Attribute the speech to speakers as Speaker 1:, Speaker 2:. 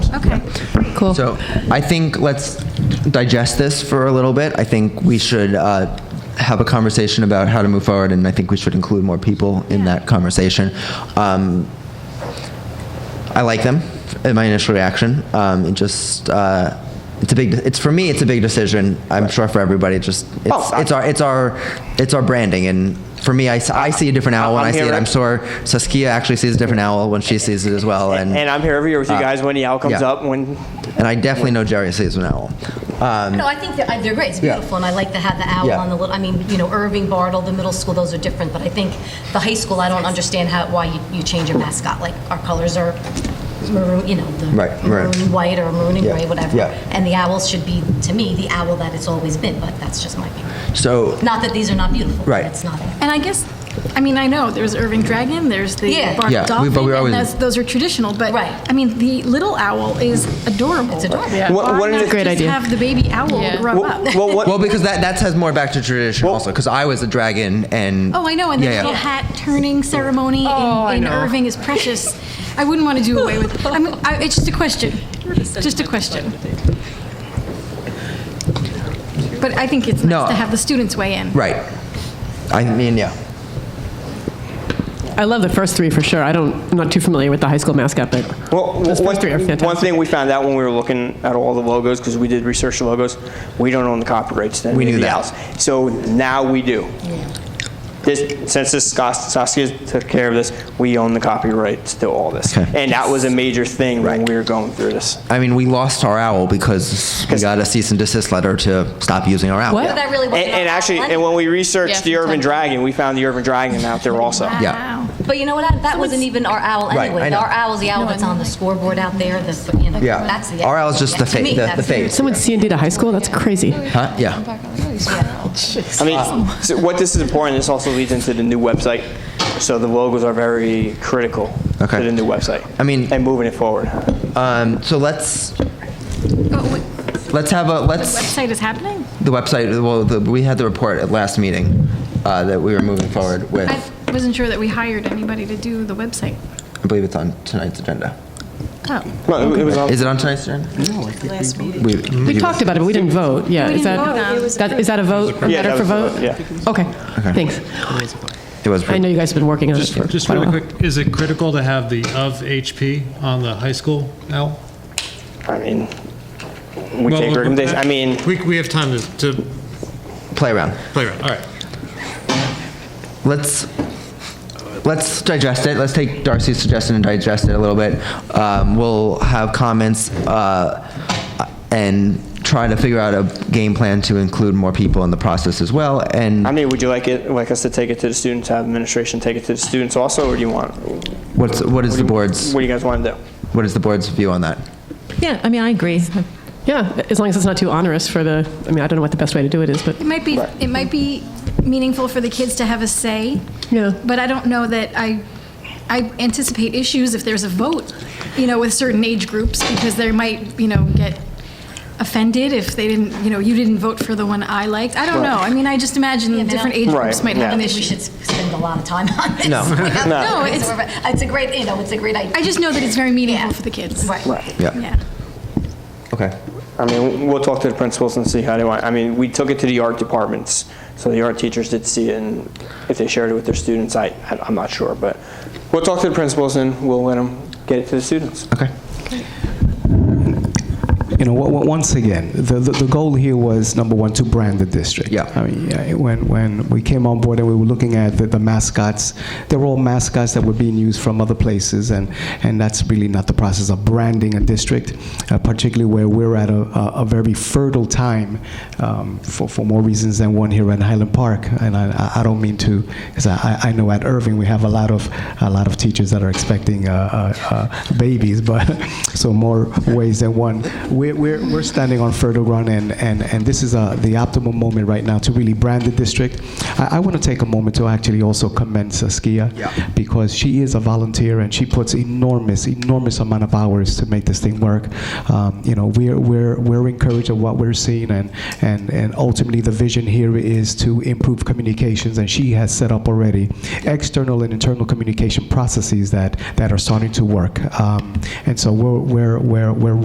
Speaker 1: Cool.
Speaker 2: So I think let's digest this for a little bit. I think we should uh, have a conversation about how to move forward, and I think we should include more people in that conversation. Um, I like them. In my initial reaction, um, it just. Uh, it's a big. It's for me. It's a big decision. I'm sure for everybody. It just. It's,
Speaker 3: Oh,
Speaker 2: it's our. It's our. It's our branding. And for me, I, s- I see a different owl when
Speaker 3: I'm
Speaker 2: I see
Speaker 3: here
Speaker 2: it.
Speaker 3: to-
Speaker 2: I'm sure Saskia actually sees a different owl when she sees it as well. And
Speaker 3: And I'm here every year with you guys when the owl comes
Speaker 2: Mm. Ah. yeah.
Speaker 3: up. When
Speaker 2: and I definitely know Jerry sees an owl. Um,
Speaker 4: No, I think they're, I- they're great. It's
Speaker 2: Yeah.
Speaker 4: beautiful, and I like to have the owl
Speaker 2: Yeah.
Speaker 4: on the little, I mean, you know, Irving, Bartle, the middle school, those are different, but I think the high school, I don't understand how, why you, you change your mascot. Like, our colors are maroon, you know, the
Speaker 2: Right, right.
Speaker 4: maroon and white or maroon and
Speaker 2: Yeah,
Speaker 4: gray, whatever.
Speaker 2: yeah.
Speaker 4: And the owl should be, to me, the owl that it's always been, but that's just my opinion.
Speaker 2: so
Speaker 4: Not that these are not beautiful. but
Speaker 2: Right.
Speaker 4: It's not.
Speaker 5: And I guess, I mean, I know Oh, there's Irving Dragon, there's the
Speaker 4: Yeah.
Speaker 5: Bark
Speaker 2: Yeah, we- but
Speaker 5: Dolphin,
Speaker 2: we're always-
Speaker 5: and that's, those are traditional. But
Speaker 4: Right.
Speaker 5: I mean, the little owl is adorable.
Speaker 4: It's adorable.
Speaker 5: Why
Speaker 4: Yeah.
Speaker 3: What- what
Speaker 5: not
Speaker 3: is- Great
Speaker 5: just
Speaker 6: idea.
Speaker 5: have the baby owl
Speaker 6: Yeah.
Speaker 5: grow
Speaker 3: well,
Speaker 5: up?
Speaker 3: well, what,
Speaker 2: well, because that that has more back to tradition
Speaker 3: Well-
Speaker 2: also, because I was a dragon and
Speaker 5: Oh, I know, and the
Speaker 2: Yeah, yeah.
Speaker 5: little hat turning ceremony
Speaker 6: Oh, I
Speaker 5: in, in
Speaker 6: know.
Speaker 5: Irving is precious. I wouldn't want to do away with. I mean, I, it's just a question. Just a question. But I think it's nice
Speaker 2: No.
Speaker 5: to have the students weigh in.
Speaker 2: right. I mean, yeah.
Speaker 6: I love the first three for sure. I don't, I'm not too familiar with the high school mascot, but
Speaker 3: Well,
Speaker 6: those
Speaker 3: one,
Speaker 6: first three are fantastic.
Speaker 3: one thing we found out when we were looking at all the logos, because we did research the logos, we don't own the copyrights to
Speaker 2: We knew
Speaker 3: anybody
Speaker 2: that.
Speaker 3: else. So now we do. This, since this Sas- Saskia took care of this, we own the copyrights to all this,
Speaker 2: Okay.
Speaker 3: and that was a major thing when we were going through this.
Speaker 2: I mean, we lost our owl because we got a cease and desist letter to stop using our owl.
Speaker 4: But that really
Speaker 3: And,
Speaker 4: wasn't.
Speaker 3: and
Speaker 4: our
Speaker 3: actually,
Speaker 4: owl
Speaker 3: and when we
Speaker 6: Yeah,
Speaker 3: researched the
Speaker 6: from
Speaker 3: Urban
Speaker 6: time to time.
Speaker 3: Dragon, we found the Urban Dragon out there also.
Speaker 2: Yeah.
Speaker 5: Wow.
Speaker 4: But you know what, Adam? that wasn't even our owl
Speaker 2: Right, I
Speaker 4: anyway.
Speaker 2: know.
Speaker 4: Our owl's the owl that's on the scoreboard out there, the, you know,
Speaker 2: Yeah.
Speaker 4: that's the.
Speaker 2: Our owl's just the
Speaker 4: To
Speaker 2: fa-
Speaker 4: me,
Speaker 2: the- the
Speaker 4: that's-
Speaker 2: face.
Speaker 6: someone C&D to high school, that's crazy.
Speaker 2: Huh? Yeah.
Speaker 3: I mean, so what this is important. This also leads into the new website. So the logos are very critical
Speaker 2: Okay.
Speaker 3: to the new website.
Speaker 2: I mean-
Speaker 3: and moving it forward.
Speaker 2: Um, so let's
Speaker 5: Oh, wait,
Speaker 2: let's have a
Speaker 5: the
Speaker 2: let's
Speaker 5: website is happening.
Speaker 2: the website. Well, the, we had the report at last meeting uh, that we were moving forward with.
Speaker 5: I
Speaker 2: I
Speaker 5: wasn't sure that we hired anybody to do the website.
Speaker 2: believe it's on tonight's agenda.
Speaker 5: Oh,
Speaker 3: No, it was on.
Speaker 2: Is it on tonight's agenda? No, I think we voted.
Speaker 6: We talked about it, but we didn't vote. Yeah,
Speaker 5: We
Speaker 6: is
Speaker 5: didn't vote
Speaker 6: that,
Speaker 5: on it. It was
Speaker 6: that- is that a vote? A
Speaker 3: Yeah,
Speaker 6: matter
Speaker 3: that
Speaker 6: for
Speaker 3: was a vote,
Speaker 6: vote?
Speaker 3: yeah.
Speaker 6: Okay, thanks.
Speaker 2: It was.
Speaker 6: I know you guys have been working on it for
Speaker 7: Just
Speaker 6: quite a
Speaker 7: really
Speaker 6: while.
Speaker 7: quick, is it critical to have the of HP on the high school owl?
Speaker 3: I mean, we
Speaker 7: Well,
Speaker 3: take
Speaker 7: we'll-
Speaker 3: recommendations. I mean,
Speaker 7: We, we have time to, to
Speaker 2: play around.
Speaker 7: play around, all right.
Speaker 2: let's let's digest it. Let's take Darcy's suggestion and digest it a little bit. Um, we'll have comments uh, and try to figure out a game plan to include more people in the process as well. And
Speaker 3: I mean, would you like it, like us to take it to the students, have administration take it to the students also, or do you want,
Speaker 2: what's what is the board's
Speaker 3: what do you guys want to do?
Speaker 2: what is the board's view on that?
Speaker 6: Yeah, I mean, I agree. Yeah, as long as it's not too onerous for the, I mean, I don't know what the best way to do it is, but
Speaker 5: it might be it might be meaningful for the kids to have a say.
Speaker 6: Yeah.
Speaker 5: But I don't know that I I anticipate issues if there's a vote, you know, with certain age groups because they might, you know, get offended if they didn't, you know, you didn't vote for the one I liked. I don't know. I mean, I just imagine
Speaker 4: Yeah, they
Speaker 5: different
Speaker 4: don't-
Speaker 5: age
Speaker 3: Right,
Speaker 5: groups might
Speaker 3: yeah.
Speaker 5: have an
Speaker 4: think we
Speaker 5: issue.
Speaker 4: should s- spend a lot of time on this.
Speaker 2: No.
Speaker 5: No, it's-
Speaker 4: it's, a great, you know, it's a great idea.
Speaker 5: I just know that it's very meaningful
Speaker 4: Yeah.
Speaker 5: for the kids.
Speaker 4: Right.
Speaker 2: Yeah.
Speaker 5: Yeah.
Speaker 2: Okay.
Speaker 3: I mean, we'll talk to the principals and see how they want. I mean, we took it to the art departments, so the art teachers did see it, and if they shared it with their students, I, I- I'm not sure, but we'll talk to the principals and we'll let them get it to the students.
Speaker 2: Okay.
Speaker 8: you know, w- once again, the, the, the goal here was number one to brand the district.
Speaker 2: Yeah.
Speaker 8: I mean, yeah, when when we came on board and we were looking at the, the mascots, they were all mascots that were being used from other places, and and that's really not the process of branding a district, uh, particularly where we're at a, a, a very fertile time um, for for more reasons than one here at Highland Park, and I, I- I don't mean to, because I, I- I know at Irving we have a lot of a lot of teachers that are expecting uh, uh, uh, babies, but so more ways than one. We're, we're, we're standing on fertile ground, and, and, and this is uh, the optimal moment right now to really brand the district. I, I want to take a moment to actually also commend Saskia
Speaker 2: Yeah.
Speaker 8: because she is a volunteer and she puts enormous, enormous amount of hours to make this thing work. Um, you know, we're, we're, we're encouraged of what we're seeing, and, and, and ultimately the vision here is to improve communications, and she has set up already external and internal communication processes that, that are starting to work. Um, and so we're, we're, we're, we're